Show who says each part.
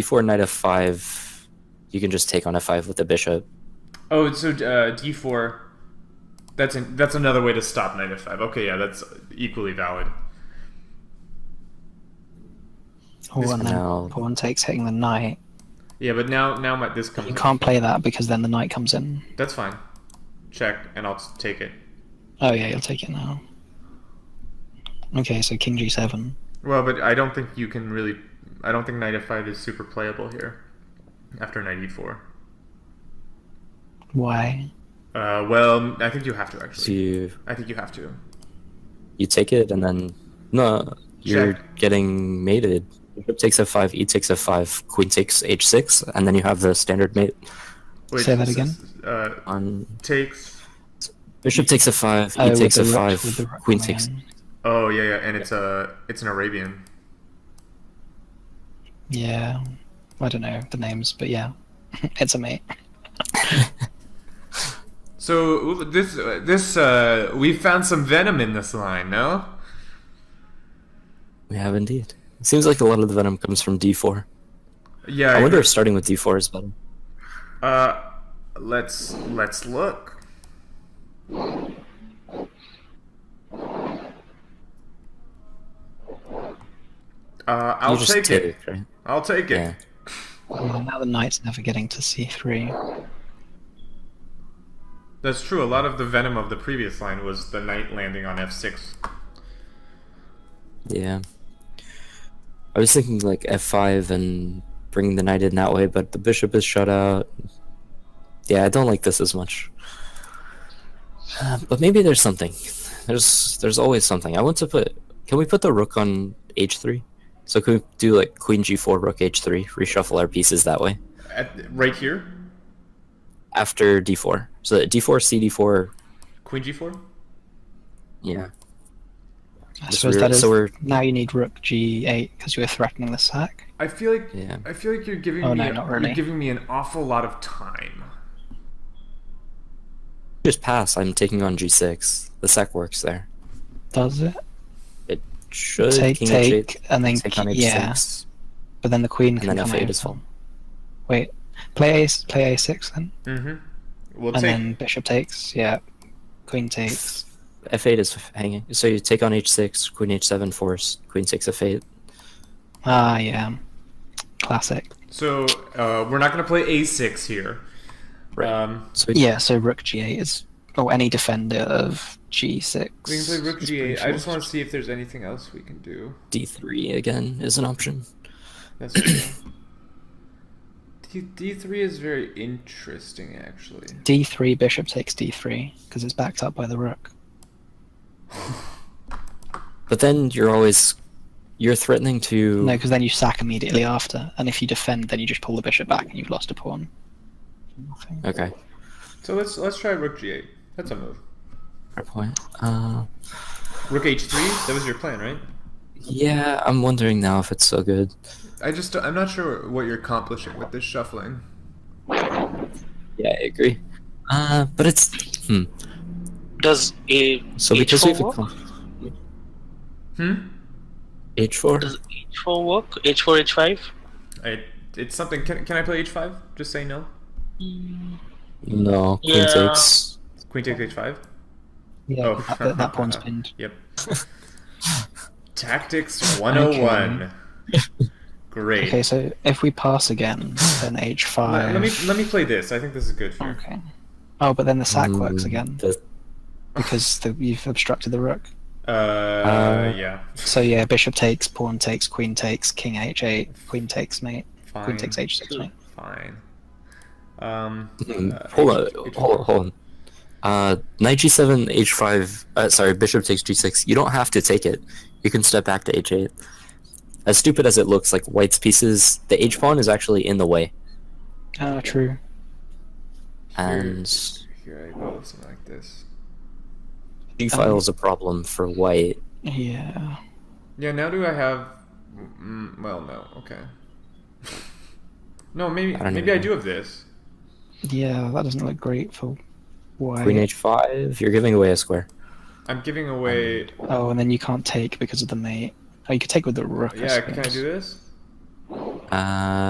Speaker 1: Before knight f5, you can just take on f5 with the bishop.
Speaker 2: Oh, so uh, d4. That's an, that's another way to stop knight f5. Okay, yeah, that's equally valid.
Speaker 1: This
Speaker 3: Oh, and
Speaker 1: now-
Speaker 3: then pawn takes hitting the knight.
Speaker 2: Yeah, but now now my this comes.
Speaker 3: You can't play that because then the knight comes in.
Speaker 2: That's fine. Check, and I'll s- take it.
Speaker 3: Oh yeah, you'll take it now. Okay, so king g7.
Speaker 2: Well, but I don't think you can really. I don't think knight f5 is super playable here. After knight e4.
Speaker 3: Why?
Speaker 2: Uh, well, I think you have to
Speaker 1: So
Speaker 2: actually.
Speaker 1: you
Speaker 2: I think you have to.
Speaker 1: you take it and then no, you're getting mated. Bishop takes f5, e takes f5, queen takes h6, and then you have the standard mate
Speaker 3: Say that
Speaker 2: s-
Speaker 3: again?
Speaker 2: s- Uh,
Speaker 1: on
Speaker 2: takes.
Speaker 1: bishop takes f5, e
Speaker 3: Oh, with
Speaker 1: takes
Speaker 3: the rook-
Speaker 1: f5,
Speaker 3: with the rook
Speaker 1: queen
Speaker 3: coming
Speaker 1: takes.
Speaker 3: in.
Speaker 2: Oh yeah, yeah, and it's a it's an Arabian.
Speaker 3: Yeah, I don't know the names, but yeah, it's a mate.
Speaker 2: So this this uh, we found some venom in this line, no?
Speaker 1: We have indeed. Seems like a lot of the venom comes from d4.
Speaker 2: Yeah.
Speaker 1: I wonder if starting with d4 is better.
Speaker 2: Uh, let's let's look. Uh, I'll
Speaker 1: You just
Speaker 2: take it.
Speaker 1: right?
Speaker 2: I'll take it.
Speaker 1: Yeah.
Speaker 3: Well, now the knight's never getting to c3.
Speaker 2: That's true. A lot of the venom of the previous line was the knight landing on f6.
Speaker 1: Yeah. I was thinking like f5 and bringing the knight in that way, but the bishop is shut out. Yeah, I don't like this as much. Uh, but maybe there's something. There's there's always something. I want to put. Can we put the rook on h3? So can we do like queen g4, rook h3, reshuffle our pieces that way
Speaker 2: At, right here,
Speaker 1: after d4? So that d4, cd4.
Speaker 2: queen g4.
Speaker 1: Yeah.
Speaker 3: I
Speaker 1: Just
Speaker 3: suppose
Speaker 1: re-
Speaker 3: that is.
Speaker 1: so we're-
Speaker 3: Now you need rook g8 because you were threatening the sack.
Speaker 2: I feel like
Speaker 1: Yeah.
Speaker 2: I feel like you're giving
Speaker 3: Oh,
Speaker 2: me
Speaker 3: no, not really.
Speaker 2: you're giving me an awful lot of time.
Speaker 1: Just pass. I'm taking on g6. The sac works there.
Speaker 3: Does it?
Speaker 1: It should
Speaker 3: Take,
Speaker 1: Uh, king
Speaker 3: take,
Speaker 1: h8,
Speaker 3: and then
Speaker 1: take on h6.
Speaker 3: ki- yeah. But then the queen
Speaker 1: And
Speaker 3: can
Speaker 1: then
Speaker 3: come
Speaker 1: f8
Speaker 3: over.
Speaker 1: is full.
Speaker 3: Wait, play a play a6 then,
Speaker 2: Mm-hmm. We'll
Speaker 3: and
Speaker 2: take.
Speaker 3: then bishop takes. Yeah, queen takes.
Speaker 1: f8 is hanging. So you take on h6, queen h7 force, queen 6 f8.
Speaker 3: Ah, yeah, classic.
Speaker 2: So uh, we're not gonna play a6 here.
Speaker 1: Right.
Speaker 2: Um,
Speaker 1: so
Speaker 3: Yeah, so rook g8 is or any defender of g6.
Speaker 2: we can play rook
Speaker 3: is pretty
Speaker 2: g8. I just
Speaker 3: forced.
Speaker 2: want to see if there's anything else we can do.
Speaker 1: d3 again is an option.
Speaker 2: That's true. D- d3 is very interesting, actually.
Speaker 3: d3 bishop takes d3 because it's backed up by the rook.
Speaker 1: But then you're always you're threatening to
Speaker 3: No, because then you sack immediately after, and if you defend, then you just pull the bishop back and you've lost a pawn. Nothing.
Speaker 1: Okay.
Speaker 2: So let's let's try rook g8. That's a move.
Speaker 1: Fair point. Uh,
Speaker 2: Rook h3. That was your plan, right?
Speaker 1: yeah, I'm wondering now if it's so good.
Speaker 2: I just I'm not sure what you're accomplishing with this shuffling.
Speaker 1: Yeah, I agree. Uh, but it's hmm.
Speaker 4: Does a
Speaker 1: So because
Speaker 4: H4
Speaker 1: we've
Speaker 4: work?
Speaker 1: accom-
Speaker 2: Hmm.
Speaker 1: h4.
Speaker 4: Does H4 work? H4, H5?
Speaker 2: I, it's something. Can, can I play h5? Just say no.
Speaker 1: No, queen
Speaker 4: Yeah.
Speaker 1: takes.
Speaker 2: Queen takes h5.
Speaker 3: Yeah,
Speaker 2: Oh.
Speaker 3: that, that, that pawn's pinned.
Speaker 2: Yep. Tactics 101. Great.
Speaker 3: Okay, so if we pass again, then h5.
Speaker 2: let, let me let me play this. I think this is good for you.
Speaker 3: Okay. Oh, but then the sack
Speaker 1: Hmm.
Speaker 3: works again
Speaker 1: The-
Speaker 3: because the, you've obstructed the rook.
Speaker 2: Uh,
Speaker 1: Uh,
Speaker 2: yeah.
Speaker 3: So yeah, bishop takes, pawn takes, queen takes, king h8, queen takes mate,
Speaker 2: Fine.
Speaker 3: queen takes h6 mate.
Speaker 2: Fine. Um.
Speaker 1: Hmm,
Speaker 2: uh,
Speaker 1: hold on,
Speaker 2: H- H-
Speaker 1: hold on, hold on. Uh, knight g7, h5. Uh, sorry, bishop takes g6. You don't have to take it. You can step back to h8. As stupid as it looks, like white's pieces, the h pawn is actually in the way,
Speaker 3: Ah, true.
Speaker 1: and
Speaker 2: Here I go. Something like this.
Speaker 1: g file is a problem for white.
Speaker 3: Yeah.
Speaker 2: Yeah. Now do I have? Mm, well, no. Okay. No, maybe
Speaker 1: I don't
Speaker 2: maybe
Speaker 1: even
Speaker 2: I
Speaker 1: know.
Speaker 2: do have this.
Speaker 3: Yeah, that doesn't look great for white.
Speaker 1: Queen h5. You're giving away a square.
Speaker 2: I'm giving away.
Speaker 3: Oh, and then you can't take because of the mate. Oh, you could take with the rook. I
Speaker 2: Yeah, can I
Speaker 3: suppose.
Speaker 2: do this?
Speaker 1: Uh,